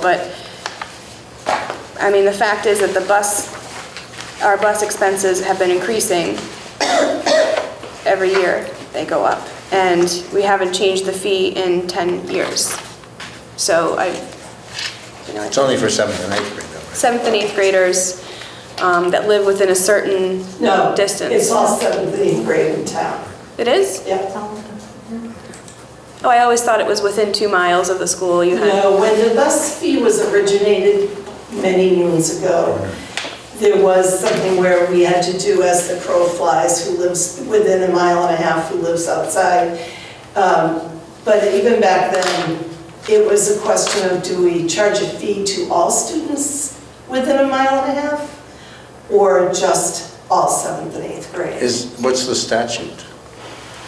but, I mean, the fact is that the bus, our bus expenses have been increasing every year, they go up, and we haven't changed the fee in 10 years. So I, you know, I It's only for seventh and eighth grade though, seventh and eighth graders um, that live within a certain No, it's distance. all seventh and eighth grade in town. It is? Yep. Oh, I always thought it was within two miles of the school you had. No, when the bus fee was originated many moons ago, there was something where we had to do as the crow flies, who lives within a mile and a half, who lives outside. Um, But even back then, it was a question of do we charge a fee to all students within a mile and a half? Or just all seventh and eighth right? grade? Is, what's the statute?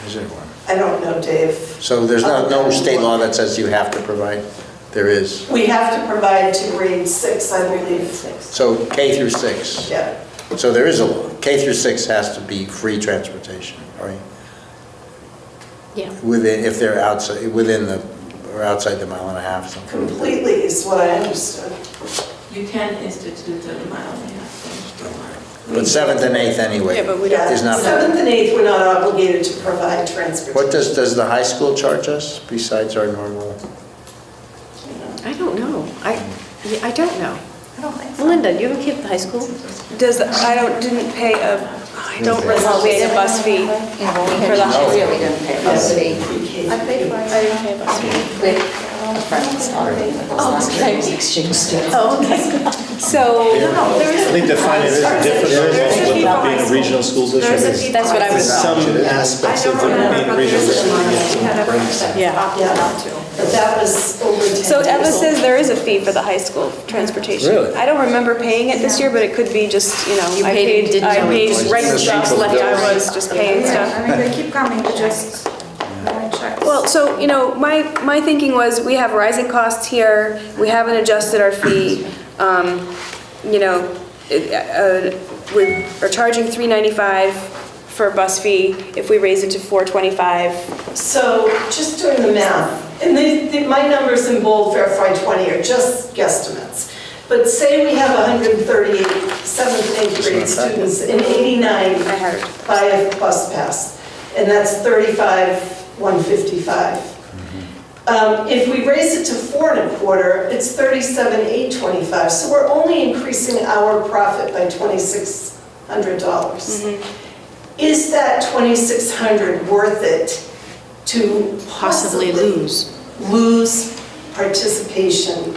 Is there one? I don't know, Dave. So there's not, no state law that says you have to provide? There is. We have to provide to grade six, I believe. So K through six. Yeah, So there is a law. K through six has to be free transportation, right? Yeah. Within, if they're outside, within the, or outside the mile and a half, something. completely is what I understood. You can institute the mile and a half. But seventh and eighth anyway. Yeah, but we don't- Is not, Seventh and eighth, we're not obligated to provide what transportation. does, does the high school charge us besides our normal? I don't know. I, yeah, I don't know. Melinda, you have a kid at the high school? Does, I don't, didn't pay a, I don't Didn't pay. recall paying a bus fee. Yeah, when we For had the kids, house. we didn't pay bus fee. I didn't pay a bus fee. With friends, sorry. Oh, Exchange students. Oh, okay. So, I think the finance is different from being a regional school district. There's That's what I was, Some aspects of it being a regional district. yeah. Yeah, but that was over 10 years so Eva says old. there is a fee for the high school transportation. Really? I don't remember paying it this year, but it could be just, you know, You I paid and paid, didn't I know it paid was. rent The stuff, cheaper left bills. I was just paying stuff. I mean, they keep coming, we just, I check. Well, so, you know, my, my thinking was, we have rising costs here, we haven't adjusted our fee, um, you know, it- uh, we are charging three ninety-five for a bus fee, if we raise it to four twenty-five, So just doing the math, and they- they- my numbers in bold for FY20 are just guesstimates. But say we have 138 seventh and eighth grade students and 89 I had, buy a bus pass, and that's 35, 155. Um, If we raise it to four and a quarter, it's 37, 825, so we're only increasing our profit by $2,600. Is that 2,600 worth it to Possibly possibly lose. lose participation?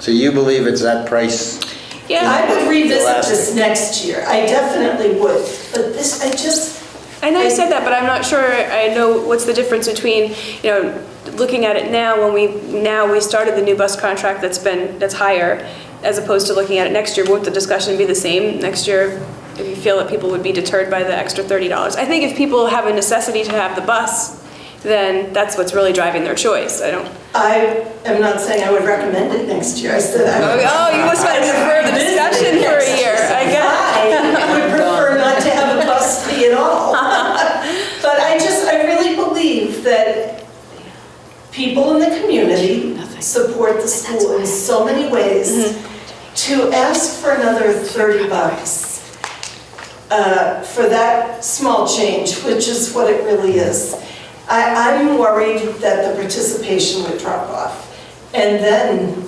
So you believe it's that price? I yeah, would revisit this Elastic. next year, I definitely would, but this, I just, I know you said that, but I'm not sure, I know what's the difference between, you know, looking at it now, when we, now we started the new bus contract that's been, that's higher, as opposed to looking at it next year, won't the discussion be the same next year? If you feel that people would be deterred by the extra thirty dollars, I think if people have a necessity to have the bus, then that's what's really driving their choice, I don't. I am not saying I would recommend it next year, I said I would. Oh, you must have deferred the discussion for a year, I guess. I would prefer not to have a bus fee at all. But I just, I really believe that people in the community support the school in so many ways. Mm-hmm. To ask for another 30 bucks uh, for that small change, which is what it really is, I, I'm worried that the participation would drop off. And then.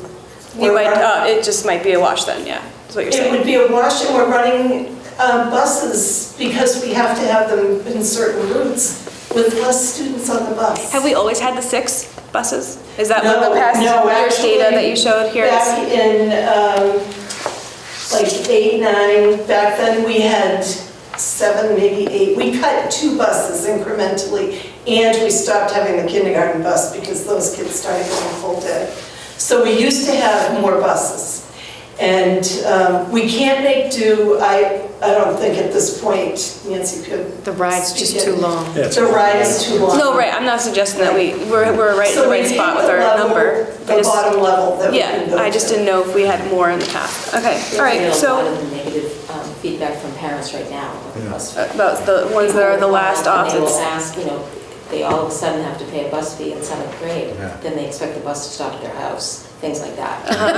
You we're might, running- uh, it just might be a wash then, yeah, is what you're it saying. would be a wash, and we're running uh, buses because we have to have them in certain routes with less students on the bus. Have we always had the six buses? Is that what the No, past no, year's data that you showed here is? Back in, um, like, eight, nine, back then, we had seven, maybe eight. We cut two buses incrementally, and we stopped having the kindergarten bus because those kids started going full day. So we used to have more buses. And um, we can't make do, I, I don't think at this point, Nancy could. The ride's just speak too it. long. Yeah. The ride is too long. No, right, I'm not suggesting that we, we're, we're right in the So we right need spot the with our level- number. I The just- bottom level that we can Yeah, go I just to. didn't know if we had more in the past. Okay, all We right, get A lot so of the negative um, feedback from parents right now about the bus fee. about the Uh, ones that are the last And They will options. ask, you know, they all of a sudden have to pay a bus fee in seventh grade, Yeah. then they expect the bus to stop at their house. Uh-huh. things like that.